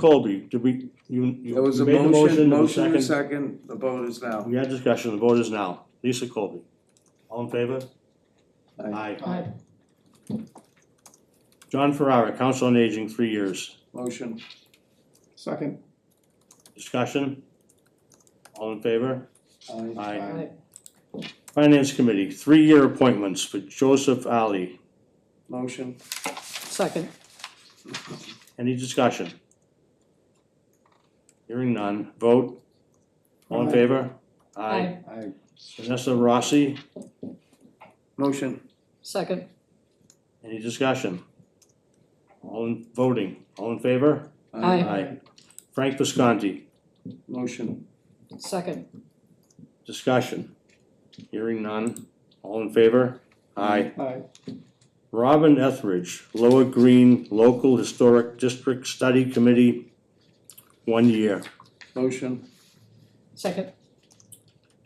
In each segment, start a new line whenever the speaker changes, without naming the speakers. Colby, did we, you, you
There was
you
a
made the
motion,
motion, and
motion
second?
and a second, the vote is now.
We had discussion, the vote is now. Lisa Colby, all in favor?
Aye.
Aye.
John Ferrara, Council on Aging, three years.
Motion,
Second.
Discussion? All in favor?
aye.
Aye.
Aye.
Finance Committee, three-year appointments for Joseph Ali.
Motion,
Second,
Any discussion? Hearing none. Vote? All in
Aye.
favor?
aye,
Aye.
Vanessa Rossi,
motion,
second,
any discussion? All in, voting, all in favor?
Aye.
Frank Visconti,
Motion,
second,
discussion. Hearing none. All in favor? Aye.
Aye.
Robin Etheridge, Lower Green Local Historic District Study Committee, one year.
motion,
second,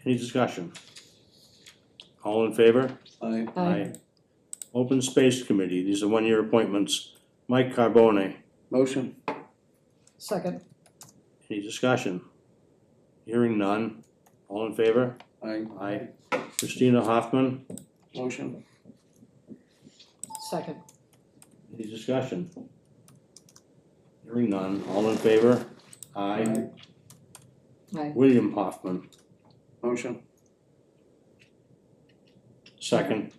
Any discussion? All in favor?
aye.
aye,
Open Space Committee, these are one-year appointments. Mike Carbone,
Motion,
second,
any discussion? Hearing none. All in favor?
aye.
Aye. Christina Hoffman,
Motion,
second,
any discussion? Hearing none. All in favor? Aye.
Aye.
aye,
William Hoffman.
motion,
Second.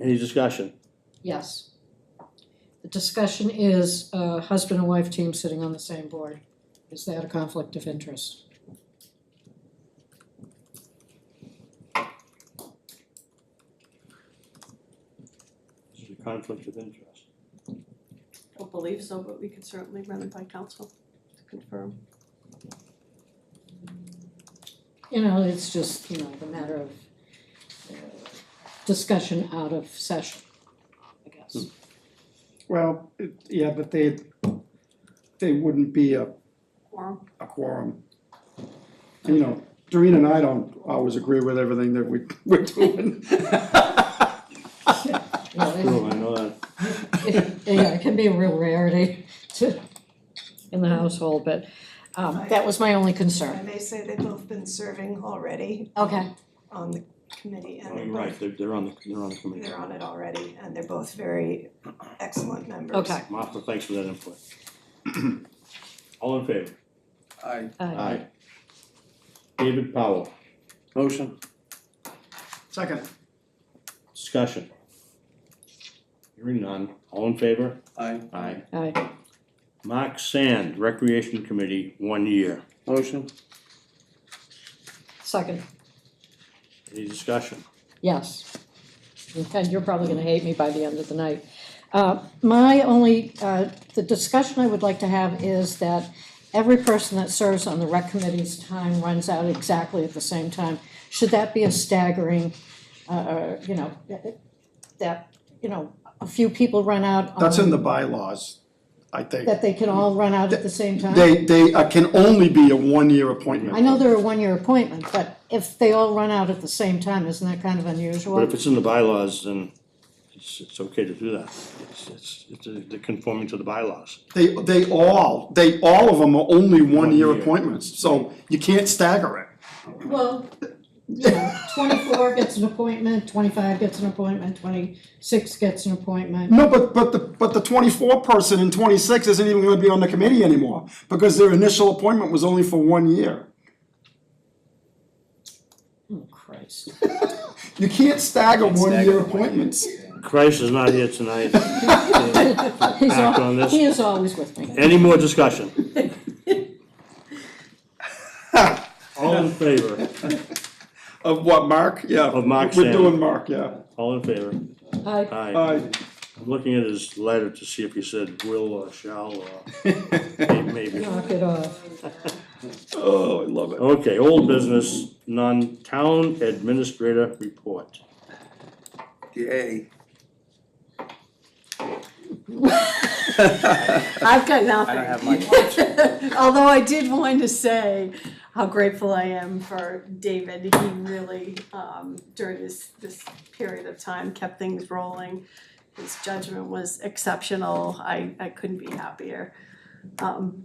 Any discussion?
yes. The discussion is uh, husband and wife team sitting on the same board. Is that a conflict of interest?
This is a conflict of interest.
Don't believe so, but we could certainly run it by council to confirm.
You know, it's just, you know, the matter of uh, discussion out of session, I guess.
Well, it- yeah, but they, they wouldn't be a,
Quorum,
a quorum. You know, Doreen and I don't always agree with everything that we, we're doing.
Well, it-
True, I know that.
it, yeah, it can be a real rarity to, in the household, but, um, that was my only
I
concern.
may say they've both been serving already
Okay,
on the committee and
Oh,
they're
you're right,
both,
they're, they're on the, they're on the committee.
they're on it already and they're both very excellent members.
okay,
Martha, thanks for that input. All in favor?
aye.
aye,
David Powell,
Motion,
Second.
discussion. Hearing none, all in favor?
aye.
Aye.
aye,
Mark Sand, Recreation Committee, one year.
Motion,
second,
Any discussion?
yes. And you're probably gonna hate me by the end of the night. Uh, my only, uh, the discussion I would like to have is that every person that serves on the rec committee's time runs out exactly at the same time. Should that be a staggering, uh, you know, that, you know, a few people run out on.
That's in the bylaws, I think.
that they can all run out at the same time?
They, they uh, can only be a one-year appointment.
I know they're a one-year appointment, but if they all run out at the same time, isn't that kind of unusual?
But if it's in the bylaws, then it's, it's okay to do that. It's, it's, it's, they're conforming to the bylaws.
They, they all, they, all of them are only one-year
year.
appointments, so you can't stagger it.
Well, you know, twenty-four gets an appointment, twenty-five gets an appointment, twenty-six gets an appointment.
No, but, but the, but the twenty-four person and twenty-six isn't even gonna be on the committee anymore, because their initial appointment was only for one year.
Oh, Christ.
You can't stagger
stagger
one-year
one year.
appointments.
Christ is not here tonight.
He's
Act on
al-
this.
he is always with me.
Any more discussion? All in favor,
Of what, Mark? Yeah.
Of Mark
We're
Sandler.
doing Mark, yeah.
all in favor,
I,
aye.
Uh,
I'm looking at his letter to see if he said will or shall or may- maybe.
knock it off.
oh, I love it.
Okay, old business, non-town administrator report.
yay.
I've got nothing.
don't have much.
Although I did want to say how grateful I am for David. He really, um, during this, this period of time, kept things rolling. His judgment was exceptional. I, I couldn't be happier. um,